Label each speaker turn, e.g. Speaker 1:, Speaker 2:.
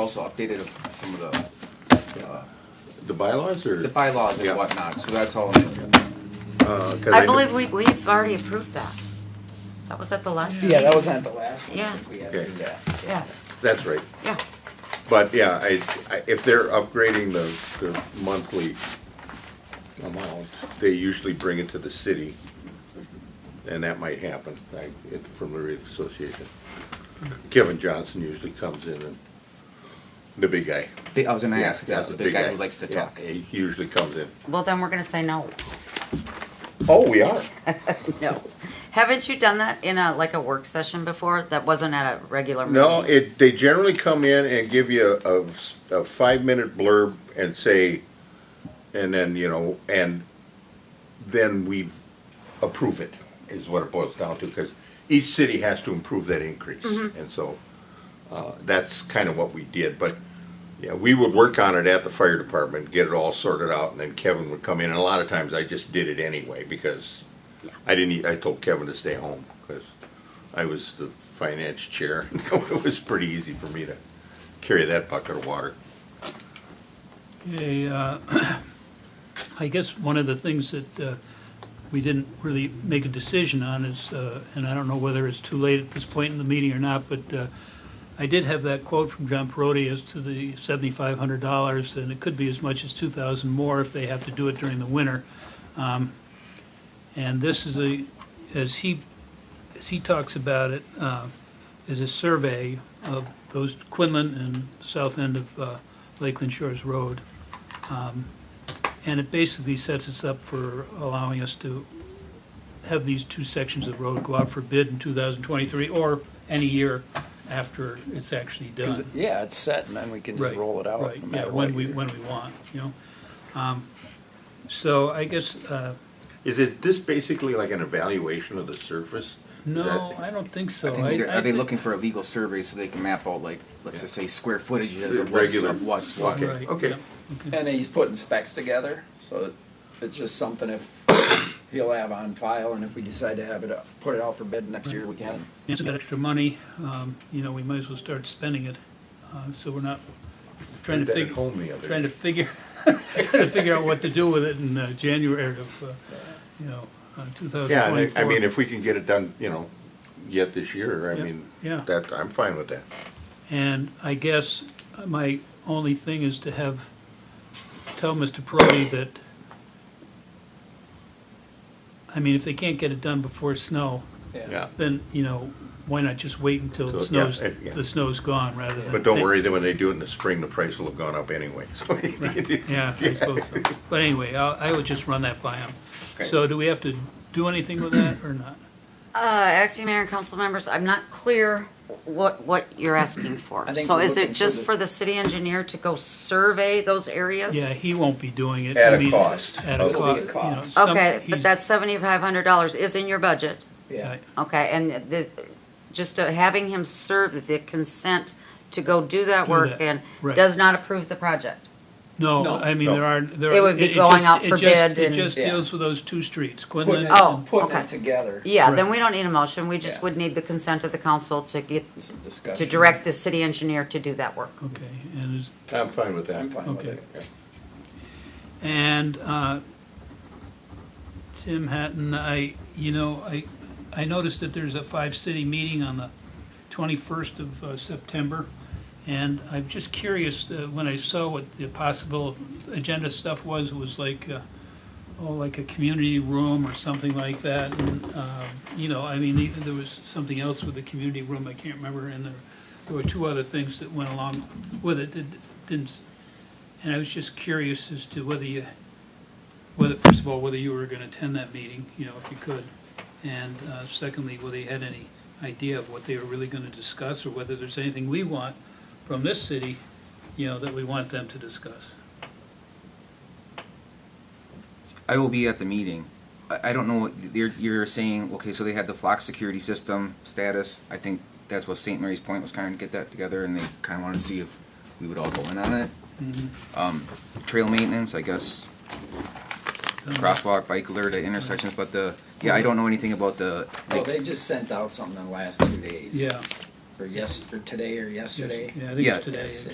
Speaker 1: also updated some of the, uh,
Speaker 2: The bylaws or?
Speaker 1: the bylaws
Speaker 2: Yeah.
Speaker 1: and whatnot, so that's all. new.
Speaker 2: Uh, 'cause
Speaker 3: I
Speaker 2: knew-
Speaker 3: believe we, we've already approved that. That was at the last
Speaker 4: Yeah,
Speaker 3: meeting.
Speaker 4: that wasn't the last one.
Speaker 3: Yeah,
Speaker 4: We had to
Speaker 2: Okay.
Speaker 4: do that.
Speaker 3: yeah,
Speaker 2: That's right.
Speaker 3: yeah.
Speaker 2: But yeah, I, I, if they're upgrading the, the monthly amount, they usually bring it to the city. And that might happen, I, it, from the Reef Association. Kevin Johnson usually comes in and, the big guy.
Speaker 1: They- I was gonna ask if
Speaker 2: Yeah,
Speaker 1: that was the big guy who likes to
Speaker 2: Yeah,
Speaker 1: talk.
Speaker 2: He usually comes in.
Speaker 3: Well, then we're gonna say no.
Speaker 2: Oh, we are.
Speaker 3: No. Haven't you done that in a, like a work session before? That wasn't at a regular meeting?
Speaker 2: No, it, they generally come in and give you a, a five-minute blurb and say, and then, you know, and then we approve it, is what it boils down to, because each city has to improve that increase. And so, uh, that's kind of what we did, but, yeah, we would work on it at the fire department, get it all sorted out, and then Kevin would come in, and a lot of times I just did it anyway, because I didn't, e- I told Kevin to stay home, because I was the finance chair, so it was pretty easy for me to carry that bucket of water.
Speaker 5: Okay, uh, I guess one of the things that uh, we didn't really make a decision on is, uh, and I don't know whether it's too late at this point in the meeting or not, but uh, I did have that quote from John Perotti as to the $7,500, and it could be as much as 2,000 more if they have to do it during the winter. Um, And this is a, as he, as he talks about it, uh, is a survey of those Quinlan and south end of uh, Lakeland Shores Road. Um, And it basically sets us up for allowing us to have these two sections of road go out for bid in 2023 or any year after it's actually
Speaker 4: 'Cause,
Speaker 5: done.
Speaker 4: yeah, it's set and then we can just
Speaker 5: Right,
Speaker 4: roll it out.
Speaker 5: Right,
Speaker 4: no
Speaker 5: yeah,
Speaker 4: matter
Speaker 5: when
Speaker 4: what
Speaker 5: we,
Speaker 4: year.
Speaker 5: when we want, you know? Um, So I guess, uh,
Speaker 2: Is it this basically like an evaluation of the surface?
Speaker 5: no,
Speaker 2: That-
Speaker 5: I don't think so.
Speaker 1: I think they're-
Speaker 5: I
Speaker 1: Are they
Speaker 5: think-
Speaker 1: looking for a legal survey so they can map out like, let's just say square footage as a what's,
Speaker 2: Regular.
Speaker 1: of what's what?
Speaker 2: Okay,
Speaker 5: Right,
Speaker 2: okay.
Speaker 5: yeah, okay.
Speaker 4: And he's putting specs together, so it's just something if he'll have on file and if we decide to have it, up- put it out for bid next year, we can.
Speaker 5: It's got extra money, um, you know, we might as well start spending it, uh, so we're not trying to
Speaker 2: That at
Speaker 5: figure,
Speaker 2: Home the other.
Speaker 5: trying
Speaker 2: day.
Speaker 5: to figure, trying to figure out what to do with it in uh, January of, uh, you know, two thousand
Speaker 2: Yeah, and
Speaker 5: twenty-four.
Speaker 2: I I mean, if we can get it done, you know, yet this year, I
Speaker 5: Yeah,
Speaker 2: mean,
Speaker 5: yeah.
Speaker 2: that, I'm fine with that.
Speaker 5: And I guess my only thing is to have, tell Mr. Prody that, I mean, if they can't get it done before snow,
Speaker 2: Yeah.
Speaker 5: then, you know, why not just wait until the
Speaker 2: So, yeah,
Speaker 5: snow's,
Speaker 2: eh, yeah.
Speaker 5: the snow's gone rather than.
Speaker 2: But don't worry, that when they do it in the spring, the price will have gone up anyway, so.
Speaker 5: Yeah, I suppose so. But anyway, I, I would just run that by him.
Speaker 2: Okay.
Speaker 5: So do we have to do anything with that or not?
Speaker 3: Uh, acting mayor and council members, I'm not clear what, what you're asking for.
Speaker 4: I think
Speaker 3: So
Speaker 4: we're
Speaker 3: is
Speaker 4: looking
Speaker 3: it
Speaker 4: for
Speaker 3: just
Speaker 4: the-
Speaker 3: for the city engineer to go survey those areas?
Speaker 5: Yeah, he won't be doing it.
Speaker 2: At
Speaker 5: I
Speaker 2: a
Speaker 5: mean,
Speaker 2: cost.
Speaker 5: At a
Speaker 2: It'll
Speaker 4: be a
Speaker 5: cost, you know.
Speaker 4: cost.
Speaker 5: some-
Speaker 3: Okay, but
Speaker 5: he's-
Speaker 3: that seventy-five hundred dollars is in your budget,
Speaker 4: Yeah.
Speaker 3: okay, and the, just uh, having him serve the consent to go do that
Speaker 5: Do
Speaker 3: work
Speaker 5: that,
Speaker 3: and
Speaker 5: right.
Speaker 3: does not approve the project.
Speaker 5: No,
Speaker 4: No.
Speaker 5: I mean,
Speaker 2: No.
Speaker 5: there are, there are.
Speaker 3: It would be going
Speaker 5: just-
Speaker 3: out
Speaker 5: it
Speaker 3: for
Speaker 5: just-
Speaker 3: bid
Speaker 5: It
Speaker 3: and-
Speaker 5: just
Speaker 4: Yeah.
Speaker 5: deals with those two streets,
Speaker 4: Putting
Speaker 5: Quinlan.
Speaker 4: it-
Speaker 3: Oh,
Speaker 4: Putting
Speaker 3: okay.
Speaker 4: it together.
Speaker 3: Yeah, then
Speaker 5: Right.
Speaker 3: we don't need a motion, we just
Speaker 4: Yeah.
Speaker 3: would need the consent of the council to get,
Speaker 4: It's a
Speaker 3: to
Speaker 4: discussion.
Speaker 3: direct the city engineer to do that work.
Speaker 5: Okay, and is,
Speaker 2: I'm fine with that.
Speaker 4: I'm fine with
Speaker 5: Okay.
Speaker 4: it.
Speaker 5: And uh, Tim Hatton, I, you know, I, I noticed that there's a five-city meeting on the 21st of uh, September, and I'm just curious, uh, when I saw what the possible agenda stuff was, it was like, uh, oh, like a community room or something like that, and, um, you know, I mean, even there was something else with the community room, I can't remember, and there, there were two other things that went along with it, that didn't s- and I was just curious as to whether you, whether, first of all, whether you were gonna attend that meeting, you know, if you could. And uh, secondly, whether you had any idea of what they were really gonna discuss, or whether there's anything we want from this city, you know, that we want them to discuss.
Speaker 1: I will be at the meeting. I, I don't know what you're, you're saying. Okay, so they had the flock security system status. I think that's what St. Mary's Point was trying to get that together, and they kind of wanted to see if we would all go in on it. Um, trail maintenance, I guess,
Speaker 5: Oh.
Speaker 1: crosswalk, bike alert at intersections, but the yeah, I don't know anything about the.
Speaker 4: Well,
Speaker 1: Like,
Speaker 4: Oh, they just sent out something in the last two days.
Speaker 5: Yeah.
Speaker 4: Or yes, or today or yesterday.
Speaker 5: Yeah, I think
Speaker 1: Yeah.
Speaker 5: it's today.
Speaker 4: Yes.